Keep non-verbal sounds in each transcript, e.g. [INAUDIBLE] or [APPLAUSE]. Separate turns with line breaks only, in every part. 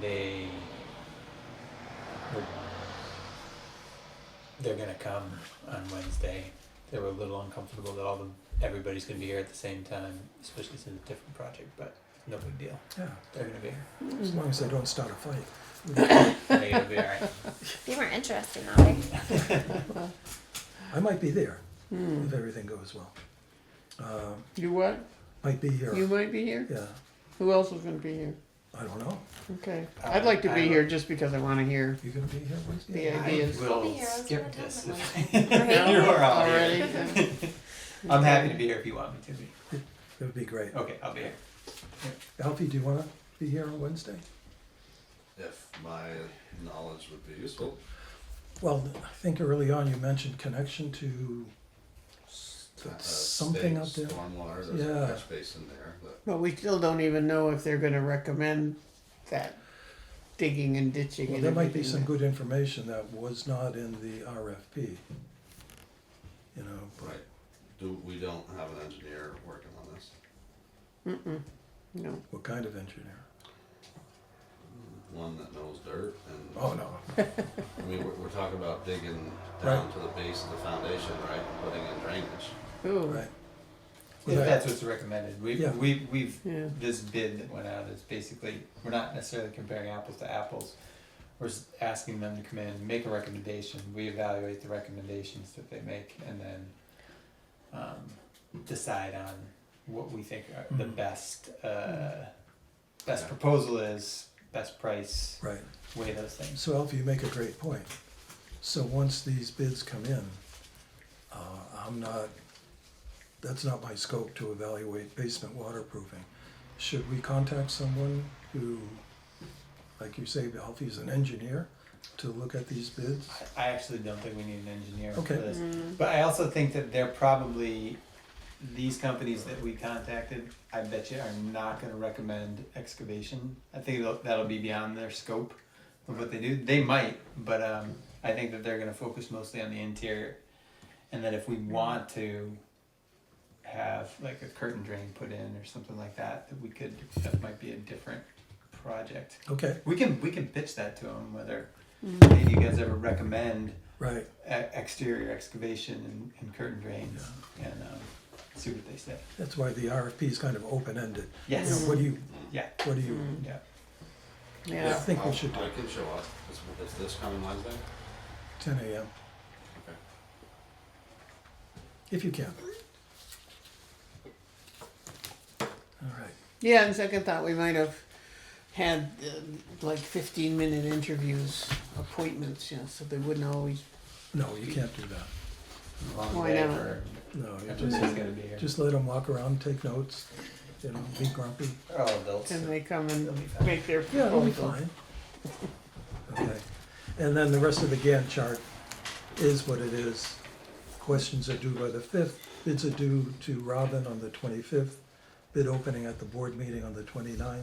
they were, they're gonna come on Wednesday. They were a little uncomfortable that all the, everybody's gonna be here at the same time, especially since it's a different project, but no big deal.
Yeah,
They're gonna be here.
as long as they don't start a fight.
They're gonna be alright.
They were interesting, that way.
I might be there if everything goes well. Um,
Hmm. You what?
might be here.
You might be here?
yeah,
Who else is gonna be here?
I don't know.
Okay,
Uh,
I'd like to
I
be
don't-
here just because I wanna
[LAUGHS]
hear
You gonna be here Wednesday?
the ideas.
I will
be here, I was
skip
gonna tell
this
them
[LAUGHS] if
No?
you are all
Already?
here.
Yeah.
I'm happy to be here if you want me to be.
That would be great.
Okay, I'll be here.
Alfie, do you wanna be here on Wednesday?
if my knowledge would be useful.
Well, I think early on you mentioned connection to,
Uh,
something up
state
there.
Stormwater, there's
Yeah.
a catch basin there, but
But we still don't even know if they're gonna recommend that digging and ditching
well,
and
there might be
everything.
some good information that was not in the RFP. You know, but
right. Do we don't have an engineer working on this?
No,
what kind of engineer?
One that knows dirt and
Mm-hmm. Oh, no.
I mean we're, we're talking about digging down to the base of the foundation, right? and Putting in drainage.
ooh,
Right.
If
Well,
that's what's recommended, we've,
Yeah.
we've, we've,
Yeah.
this bid that went out is basically, we're not necessarily comparing apples to apples. We're s- asking them to come in, make a recommendation, we evaluate the recommendations that they make, and then, um, decide on what we think are the
Mhm.
best, uh, best proposal is, best price,
Right.
weigh those things.
So Alfie, you make a great point. So once these bids come in, uh, I'm not, that's not my scope to evaluate basement waterproofing. Should we contact someone who, like you say, Alfie's an engineer, to look at these bids?
I actually don't think we need an engineer for
Okay.
this. But I also think that they're probably, these companies that we contacted, I bet you are not gonna recommend excavation. I think that'll- that'll be beyond their scope of what they do. They might, but um, I think that they're gonna focus mostly on the interior. And that if we want to have like a curtain drain put in or something like that, that we could, that might be a different project.
Okay,
We can, we can pitch that to them, whether, hey, do you guys ever recommend
right,
e- exterior excavation and, and curtain drains and um, see what they say.
that's why the RFP is kind of open-ended. You know,
Yes.
What do you,
Yeah.
what do you,
Yeah.
yeah.
think we
I'll-
should do
I
it.
can show up. Is, is this coming Wednesday?
ten AM,
Okay.
if you can. All right.
Yeah, and second thought, we might have had uh, like fifteen minute interviews, appointments, you know, so they wouldn't always.
No, you can't do that.
Long
Why
day
not?
for
No, you
everybody's
just,
gonna be here.
just let them walk around, take notes, you know, be grumpy.
They're all adults.
Can they come and
They'll be fine.
make their
Yeah, it'll be
proposal?
fine. Okay, and then the rest of the Gantt chart is what it is. Questions are due by the fifth, bids are due to Robin on the twenty-fifth, bid opening at the board meeting on the 29th.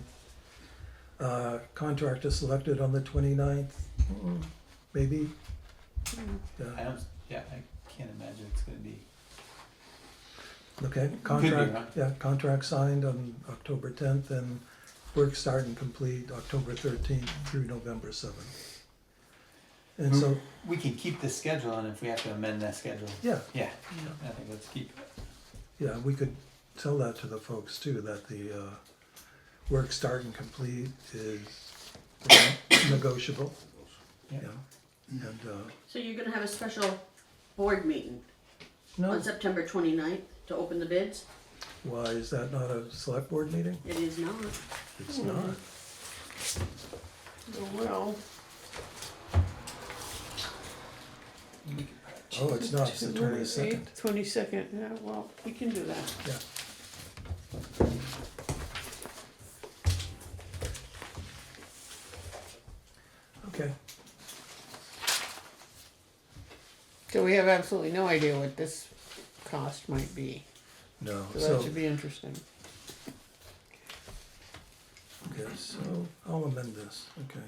Uh, contractor selected on the 29th. maybe?
I
Yeah,
don't. Yeah, I can't imagine it's gonna be.
Okay,
huh?
contract, yeah, contract signed on October tenth and work start and complete October thirteenth through November seventh. And so,
We can keep the schedule, and if we have to amend that schedule,
yeah,
yeah, I think let's keep.
yeah, we could tell that to the folks too, that the, uh, work start and complete is negotiable,
Yeah.
yeah. And, uh,
So you're gonna have a special board meeting
no,
on September 29th to open the bids?
why, is that not a select board meeting?
It is not.
It's not.
Well,
Oh, it's not, it's the twenty-second,
Twenty second, yeah, well, we can do that.
yeah. Okay.
So we have absolutely no idea what this cost might be,
No,
so
so,
that should be interesting.
okay, so I'll amend this, okay.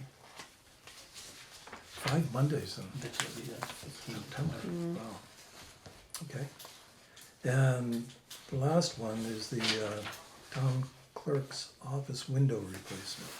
Five Mondays in
That should be the 15th.
September, wow. Okay. And the last one is the uh, town clerk's office window replacement.